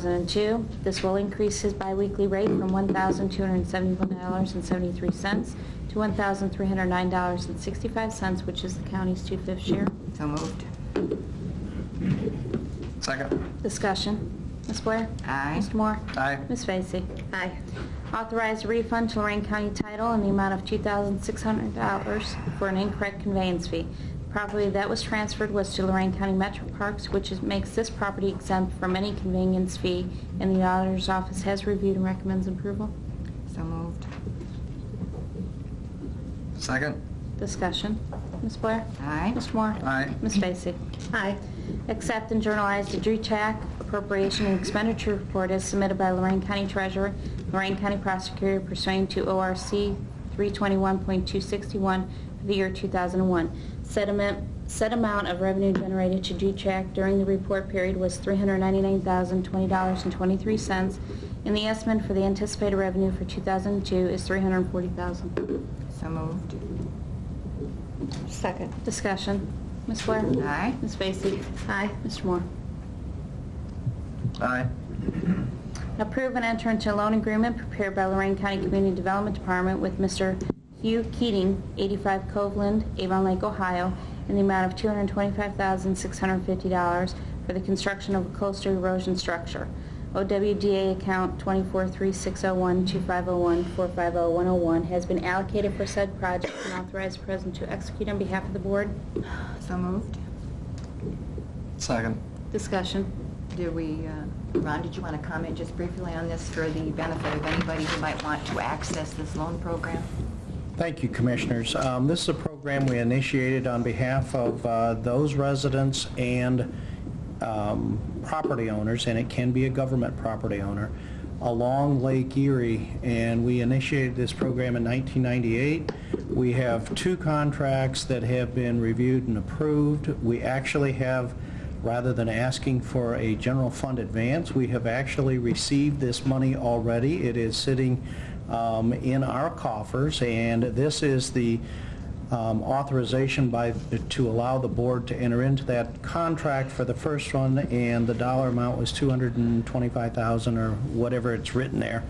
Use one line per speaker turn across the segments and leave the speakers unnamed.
2002. This will increase his biweekly rate from $1,271.73 to $1,309.65, which is the county's two-fifth share.
So moved.
Second.
Discussion. Ms. Blair?
Aye.
Mr. Moore?
Aye.
Ms. Vacy? Aye. Authorize refund to Lorraine County Title in the amount of $2,600 for an incorrect conveyance fee. The Property that was transferred was to Lorraine County Metro Parks, which is- makes this property exempt from any conveyance fee, and the auditor's office has reviewed and recommends approval.
So moved.
Second.
Discussion. Ms. Blair?
Aye.
Mr. Moore?
Aye.
Ms. Vacy? Aye. Accept and journalize the DRETAC appropriation and expenditure report as submitted by Lorraine County Treasurer, Lorraine County Prosecutor pursuant to ORC 321.261 for the year 2001. Said amount- Said amount of revenue generated to DRETAC during the report period was $399,020.23, and the estimate for the anticipated revenue for 2002 is $340,000.
So moved.
Second.
Discussion. Ms. Blair?
Aye.
Ms. Vacy?
Aye.
Mr. Moore?
Aye.
Approve and enter into a loan agreement prepared by Lorraine County Community Development Department with Mr. Hugh Keating, 85 Coveland, Avon Lake, Ohio, in the amount of $225,650 for the construction of a coastal erosion structure. OWDA account 24360125014500101 has been allocated for said project and authorized president to execute on behalf of the board.
So moved.
Second.
Discussion.
Did we, uh, Ron, did you want to comment just briefly on this for the benefit of anybody who might want to access this loan program?
Thank you, Commissioners. Um, This is a program we initiated on behalf of uh, those residents and um, property owners, and it can be a government property owner, along Lake Erie, and we initiated this program in 1998. We have two contracts that have been reviewed and approved. We actually have, rather than asking for a general fund advance, we have actually received this money already. It is sitting um, in our coffers, and this is the um, authorization by, to allow the board to enter into that contract for the first one, and the dollar amount was 225000 or whatever it's written there.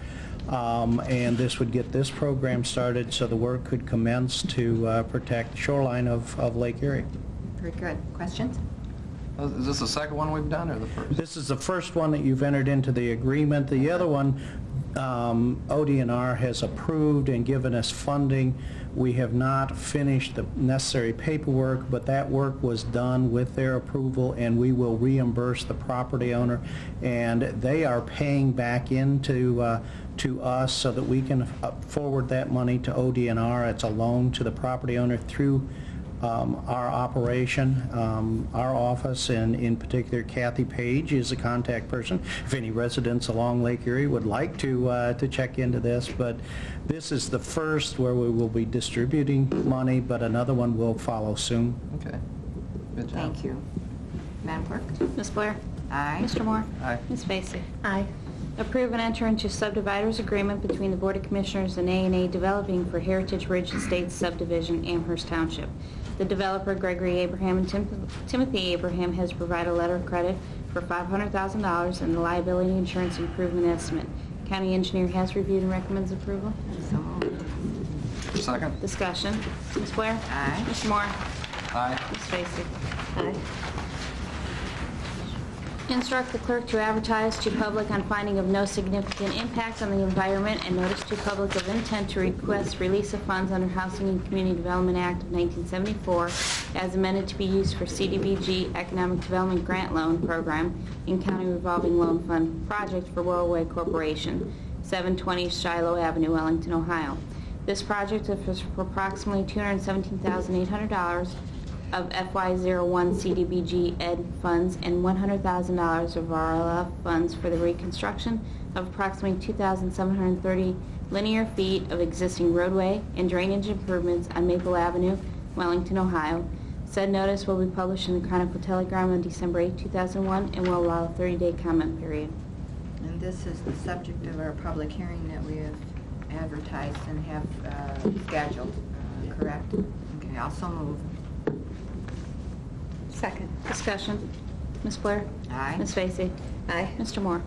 Um, And this would get this program started so the work could commence to uh, protect the shoreline of of Lake Erie.
Very good. Questions?
Is this the second one we've done or the first?
This is the first one that you've entered into the agreement. The other one, um, ODNR has approved and given us funding. We have not finished the necessary paperwork, but that work was done with their approval, and we will reimburse the property owner. And they are paying back into, uh, to us so that we can uh, forward that money to ODNR. It's a loan to the property owner through um, our operation, um, our office, and in particular Kathy Page is a contact person. If any residents along Lake Erie would like to, uh, to check into this, but this is the first where we will be distributing money, but another one will follow soon.
Okay. Good job.
Thank you. Madam Clerk?
Ms. Blair?
Aye.
Mr. Moore?
Aye.
Ms. Vacy?
Aye.
Approve and enter into subdividers agreement between the Board of Commissioners and a and A Developing for Heritage Ridge Estates subdivision, Amherst Township. The developer Gregory Abraham and Tim- Timothy Abraham has provided a letter of credit for $500,000 in the liability insurance improvement estimate. County engineer has reviewed and recommends approval.
So moved.
Second.
Discussion. Ms. Blair?
Aye.
Mr. Moore?
Aye.
Ms. Vacy?
Aye.
Instruct the clerk to advertise to public on finding of no significant impact on the environment and notice to public of intent to request release of funds under Housing and Community Development Act of 1974 as amended to be used for CDBG Economic Development Grant Loan Program and County Revolving Loan Fund Project for Wellway Corporation, 720 Shiloh Avenue, Wellington, Ohio. This project is for approximately $217,800 of FY01 CDBG Ed funds and $100,000 of RLF funds for the reconstruction of approximately 2,730 linear feet of existing roadway and drainage improvements on Maple Avenue, Wellington, Ohio. Said notice will be published in the Chronicle Telegram on December 8, 2001, and will allow a 30-day comment period.
And this is the subject of our public hearing that we have advertised and have uh, scheduled, uh, correct? Okay, also moved.
Second.
Discussion. Ms. Blair?
Aye.
Ms. Vacy? Aye. Mr. Moore?